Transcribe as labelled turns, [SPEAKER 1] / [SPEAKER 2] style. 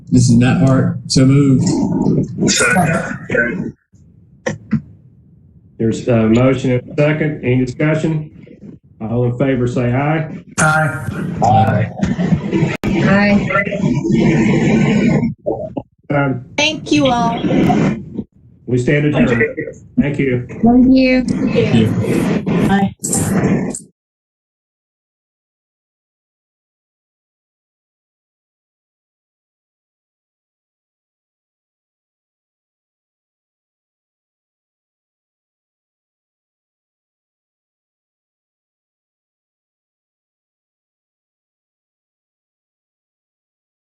[SPEAKER 1] This is Matt Hart. So moved.
[SPEAKER 2] Second.
[SPEAKER 3] There's a motion and a second. Any discussion? All in favor, say aye.
[SPEAKER 2] Aye.
[SPEAKER 4] Aye.
[SPEAKER 3] Um,
[SPEAKER 5] Thank you all.
[SPEAKER 3] We stand adjourned. Thank you.
[SPEAKER 4] Thank you.
[SPEAKER 1] Thank you.